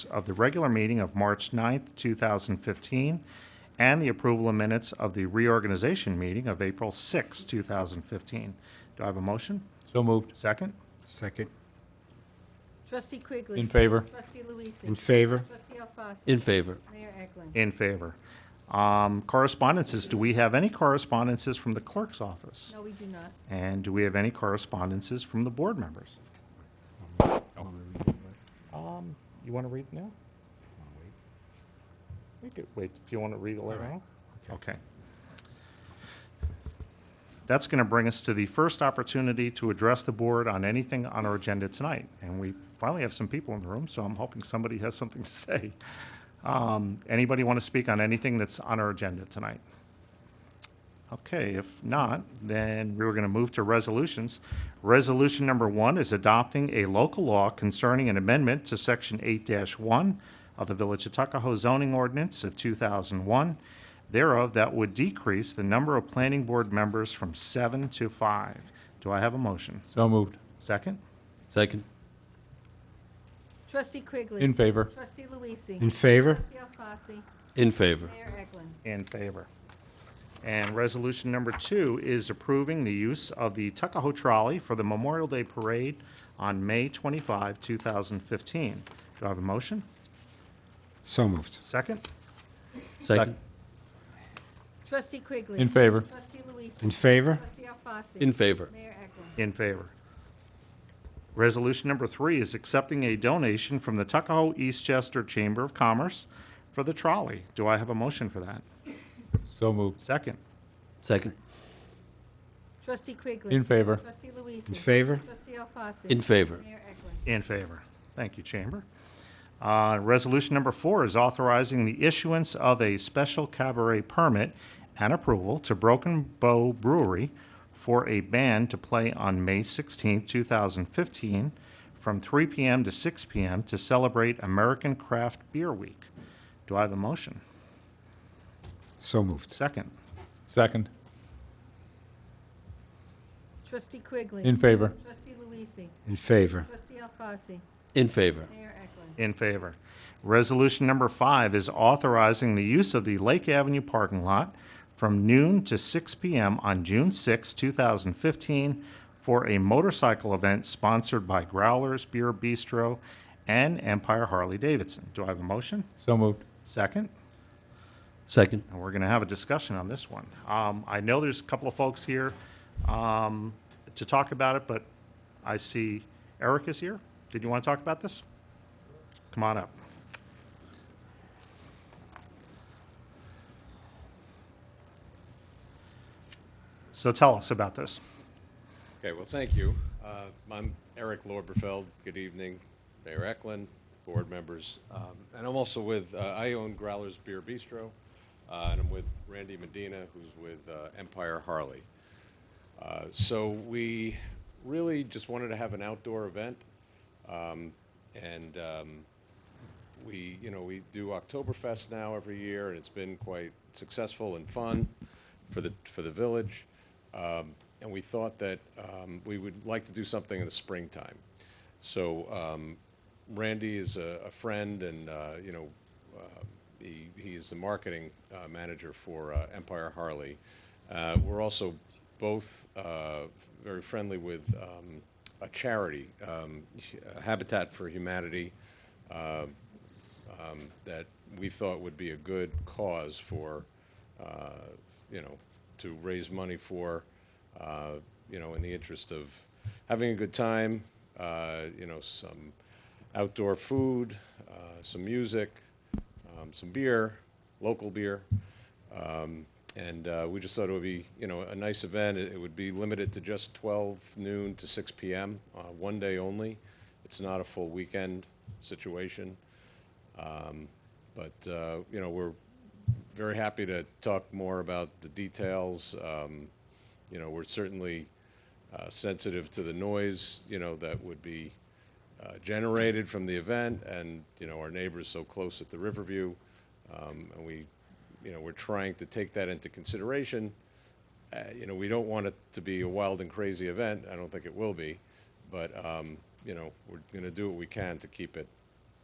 of the regular meeting of March 9th, 2015, and the approval of minutes of the reorganization meeting of April 6th, 2015. Do I have a motion? So moved. Second? Second. Trustee Quigley. In favor. Trustee Luise. In favor? Trustee Alfasi. In favor. Mayor Eklund. In favor. Um, Correspondences, do we have any correspondences from the clerk's office? No, we do not. And do we have any correspondences from the board members? Um, You want to read now? We could wait, if you want to read it later on. Okay. That's going to bring us to the first opportunity to address the board on anything on our agenda tonight. And we finally have some people in the room, so I'm hoping somebody has something to say. Um, Anybody want to speak on anything that's on our agenda tonight? Okay, if not, then we were going to move to resolutions. Resolution number one is adopting a local law concerning an amendment to Section 8-1 of the Village of Tuckahoe zoning ordinance of 2001, thereof that would decrease the number of planning board members from seven to five. Do I have a motion? So moved. Second? Second. Trustee Quigley. In favor. Trustee Luise. In favor? Trustee Alfasi. In favor. Mayor Eklund. In favor. And resolution number two is approving the use of the Tuckahoe Trolley for the Memorial Day Parade on May 25, 2015. Do I have a motion? So moved. Second? Second. Trustee Quigley. In favor. Trustee Luise. In favor? Trustee Alfasi. In favor. Mayor Eklund. In favor. Resolution number three is accepting a donation from the Tuckahoe Eastchester Chamber of Commerce for the trolley. Do I have a motion for that? So moved. Second? Second. Trustee Quigley. In favor. Trustee Luise. In favor? Trustee Alfasi. In favor. Mayor Eklund. In favor. Thank you, Chamber. Uh, Resolution number four is authorizing the issuance of a special cabaret permit and approval to Broken Bow Brewery for a band to play on May 16, 2015, from 3 p.m. to 6 p.m. to celebrate American Craft Beer Week. Do I have a motion? So moved. Second. Second. Trustee Quigley. In favor. Trustee Luise. In favor? Trustee Alfasi. In favor. Mayor Eklund. In favor. Resolution number five is authorizing the use of the Lake Avenue parking lot from noon to 6 p.m. on June 6, 2015, for a motorcycle event sponsored by Growlers Beer Bistro and Empire Harley-Davidson. Do I have a motion? So moved. Second? Second. And we're going to have a discussion on this one. Um, I know there's a couple of folks here um, to talk about it, but I see Eric is here. Did you want to talk about this? Come on up. So tell us about this. Okay, well, thank you. Uh, I'm Eric Lorberfeld. Good evening, Mayor Eklund, board members. Um, And I'm also with, uh, I own Growlers Beer Bistro, uh, and I'm with Randy Medina, who's with uh, Empire Harley. Uh, So we really just wanted to have an outdoor event. Um, And um, we, you know, we do Oktoberfest now every year, and it's been quite successful and fun for the, for the village. Um, And we thought that um, we would like to do something in the springtime. So um, Randy is a a friend and, uh, you know, uh, he, he is the marketing uh, manager for uh, Empire Harley. Uh, We're also both uh, very friendly with um, a charity, um, Habitat for Humanity, um, that we thought would be a good cause for, uh, you know, to raise money for, uh, you know, in the interest of having a good time, uh, you know, some outdoor food, uh, some music, um, some beer, local beer. Um, And uh, we just thought it would be, you know, a nice event. It it would be limited to just 12 noon to 6 PM, uh, one day only. It's not a full weekend situation. But, uh, you know, we're very happy to talk more about the details. Um, You know, we're certainly uh, sensitive to the noise, you know, that would be uh, generated from the event and, you know, our neighbors so close at the Riverview. Um, And we, you know, we're trying to take that into consideration. Uh, You know, we don't want it to be a wild and crazy event. I don't think it will be. But, um, you know, we're going to do what we can to keep it